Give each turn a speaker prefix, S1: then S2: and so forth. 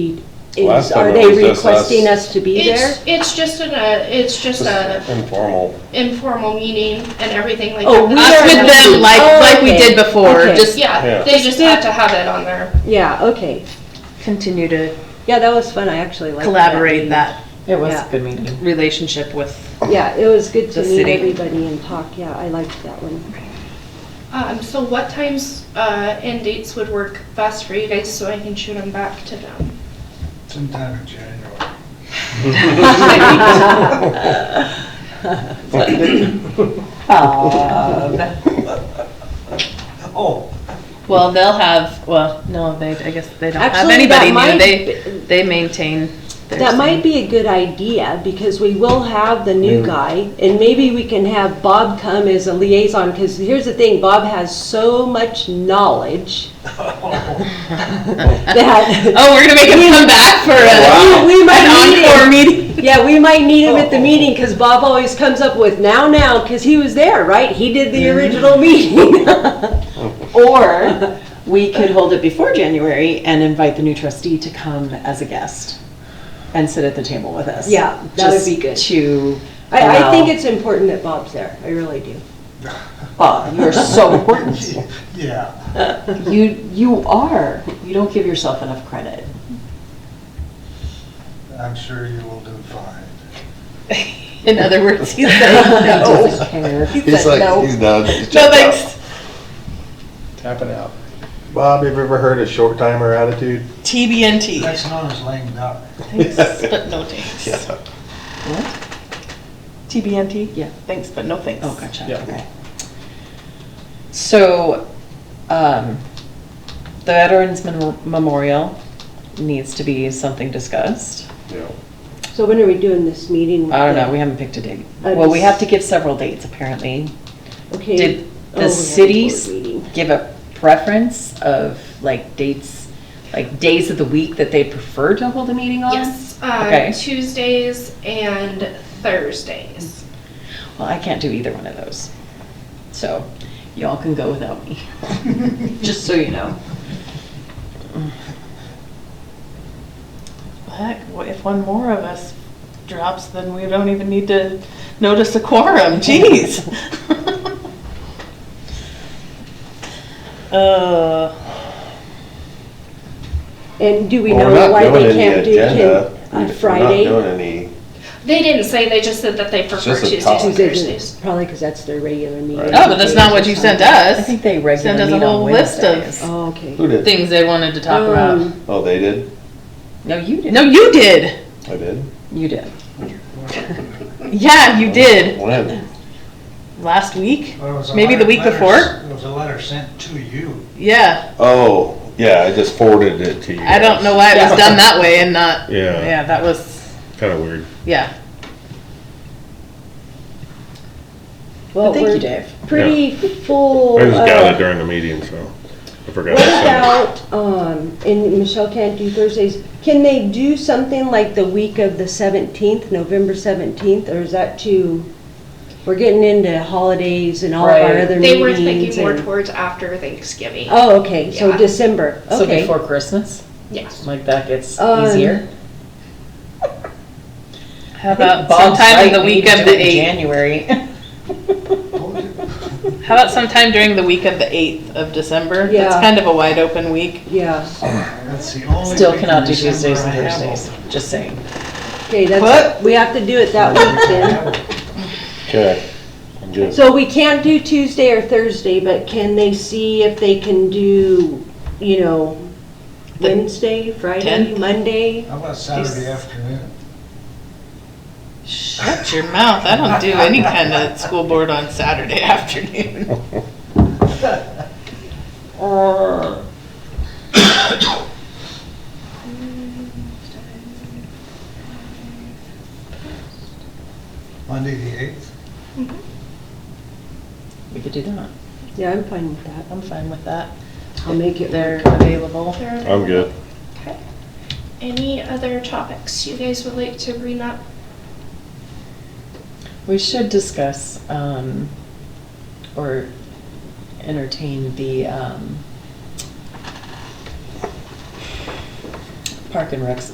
S1: Last
S2: Is,
S1: time
S2: are
S1: it
S2: they
S1: was just us.
S2: requesting us to be there?
S3: It's, it's just an, uh, it's just a
S1: Just informal.
S3: informal meeting and everything like
S2: Oh, we
S3: that.
S2: are
S4: Us with
S2: not-
S4: them, like,
S2: Oh,
S4: like we
S2: okay.
S4: did before,
S2: Okay.
S4: just
S1: Yeah.
S3: Yeah, they just have to have it on there.
S2: Yeah, okay.
S4: continue to
S2: Yeah, that was fun, I actually liked that.
S4: collaborate that
S5: It was
S2: Yeah.
S5: a good meeting.
S4: relationship with.
S2: Yeah, it was good to
S4: The
S2: meet
S4: city.
S2: everybody and talk, yeah, I liked that one.
S3: Um, so what times, uh, and dates would work best for you guys so I can shoot them back to them?
S6: Sometime in January. Oh,
S4: Well, they'll have, well, no, they, I guess they don't have
S2: Actually,
S4: anybody
S2: that
S4: new,
S2: might
S4: they, they maintain their.
S2: That might be a good idea, because we will have the
S1: Mm.
S2: new guy, and maybe we can have Bob come as a liaison, because here's the thing, Bob has so much knowledge that
S4: Oh, we're gonna make him come back for
S1: Wow.
S4: a,
S2: we might need
S4: Oh, an encore
S2: him.
S4: meeting.
S2: Yeah, we might need him at the meeting because Bob always comes up with now, now, because he was there, right? He did the original meeting.
S5: Or we could hold it before January and invite the new trustee to come as a guest and sit at the table with us.
S2: Yeah, that would
S5: Just
S2: be good.
S5: To
S2: I, I think
S5: allow-
S2: it's important that Bob's there. I really do.
S5: Bob, you're so important.
S6: yeah.
S5: You, you are. You don't give yourself enough credit.
S6: I'm sure you will do fine.
S4: In other words, he's like, no,
S5: Doesn't care.
S4: He's like, no.
S7: he's done. He's
S4: no
S7: checked out.
S4: thanks.
S7: Bob, have you ever heard of short timer attitude?
S6: That's
S4: TBNT.
S6: known as lame duck.
S4: Thanks, but no thanks.
S7: Yeah.
S4: TBNT?
S5: Yeah.
S4: Thanks, but no thanks.
S5: Oh, gotcha, okay. So, um, the Veterans Mem- Memorial needs to be something discussed.
S1: Yeah.
S2: So when are we doing this meeting?
S5: I don't know, we haven't picked a date.
S2: I
S5: Well, we
S2: just-
S5: have to give several dates, apparently.
S2: Okay.
S5: Did
S2: Oh, we
S5: the
S2: have a
S5: cities
S2: board meeting.
S5: give a preference of like dates, like days of the week that they prefer to hold a meeting on?
S3: Yes, uh,
S5: Okay.
S3: Tuesdays and Thursdays.
S5: Well, I can't do either one of those. So y'all can go without me, just so you know.
S4: Heck, wh- if one more of us drops, then we don't even need to notice a quorum, jeez. Uh,
S2: And do we
S1: Well, we're
S2: know
S1: not
S2: why
S1: doing
S2: they
S1: any
S2: can't do
S1: agenda.
S2: it
S1: We're
S2: on
S1: not
S2: Friday?
S1: doing any,
S3: They didn't say, they just said that they prefer
S1: just a
S3: Tuesdays
S1: topic.
S2: She
S3: and
S2: said
S3: Thursdays.
S2: Probably because that's their regular meeting.
S1: Right.
S4: Oh, but that's not what you sent
S5: I
S4: us.
S5: think they regularly
S4: Send us a
S5: meet on
S4: whole list of-
S5: Wednesdays.
S2: Oh, okay.
S1: who did?
S4: Things they wanted to talk about.
S2: Um,
S1: Oh, they did?
S5: No, you did.
S4: No, you did.
S1: I did?
S5: You did.
S4: Yeah, you did.
S1: When?
S4: Last week?
S6: Well, it was a
S4: Maybe the
S6: letter-
S4: week
S6: letter-
S4: before?
S6: It was a letter sent to you.
S4: Yeah.
S1: Oh, yeah, I just forwarded it to you.
S4: I don't know why it was done that way and not,
S1: Yeah,
S4: yeah, that was,
S1: kinda weird.
S4: yeah.
S2: Well,
S5: Thank you,
S2: we're
S5: Dave.
S2: pretty full.
S8: I just
S2: uh,
S8: got it during the meeting, so I forgot.
S2: What
S8: to send it.
S2: about, um, and Michelle can't do Thursdays, can they do something like the week of the seventeenth, November seventeenth, or is that too, we're getting into holidays and all of our
S5: Right.
S2: other meetings?
S3: They were thinking more
S2: and-
S3: towards after Thanksgiving.
S2: Oh, okay, so
S3: Yeah.
S2: December,
S5: So
S2: okay.
S5: before Christmas,
S3: Yes.
S5: like that gets
S2: Um,
S5: easier.
S4: How about sometime in the week of the eighth?
S5: January.
S4: How about sometime during the week of the eighth of December? That's
S2: Yeah.
S4: kind of a wide open week.
S2: Yeah,
S6: That's the only.
S5: Still
S6: week in
S5: cannot do
S6: December
S5: Tuesdays
S6: I
S5: and
S6: have
S5: Thursdays, just saying.
S2: okay, that's, we have to do it that way then.
S6: open.
S1: Okay, I'm good.
S2: So we can't do Tuesday or Thursday, but can they see if they can do, you know,
S4: The
S2: Wednesday, Friday,
S4: tenth?
S2: Monday?
S6: How about Saturday afternoon?
S4: Shut your mouth. I don't do any kind of school board on Saturday afternoon.
S6: Monday the eighth?
S5: We could do that.
S2: Yeah, I'm fine with that,
S4: I'm fine with that.
S2: I'll make it work.
S4: They're available.
S1: I'm good.
S3: Okay. Any other topics you guys would like to bring up?
S5: We should discuss, um, or entertain the, um, Park and Rec's